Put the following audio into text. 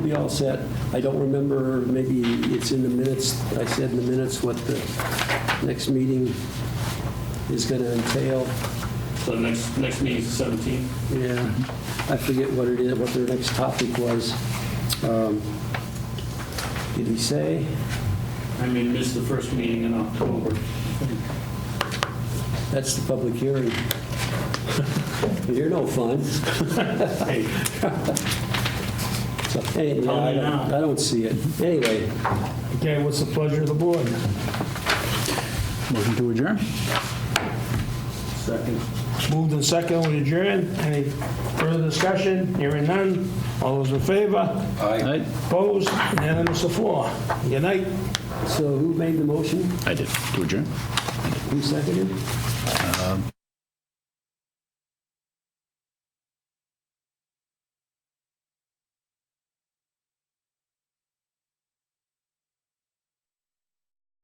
we all set. I don't remember, maybe it's in the minutes, I said in the minutes what the next meeting is going to entail. So the next, next meeting's the 17th. Yeah, I forget what it is, what their next topic was. Um, Did he say? I may miss the first meeting in October. That's the public hearing. You're no fun. Hey, So, anyway, Tell me I don't- now. I don't see it. Anyway, Okay, what's the pleasure of the board? Motion to adjourn? second. Moved and second, we adjourn. Any further discussion? Hearing none. All those in favor? Aye. Opposed? Unanimous of four. Good night. so who made the motion? I did, to adjourn. Who seconded?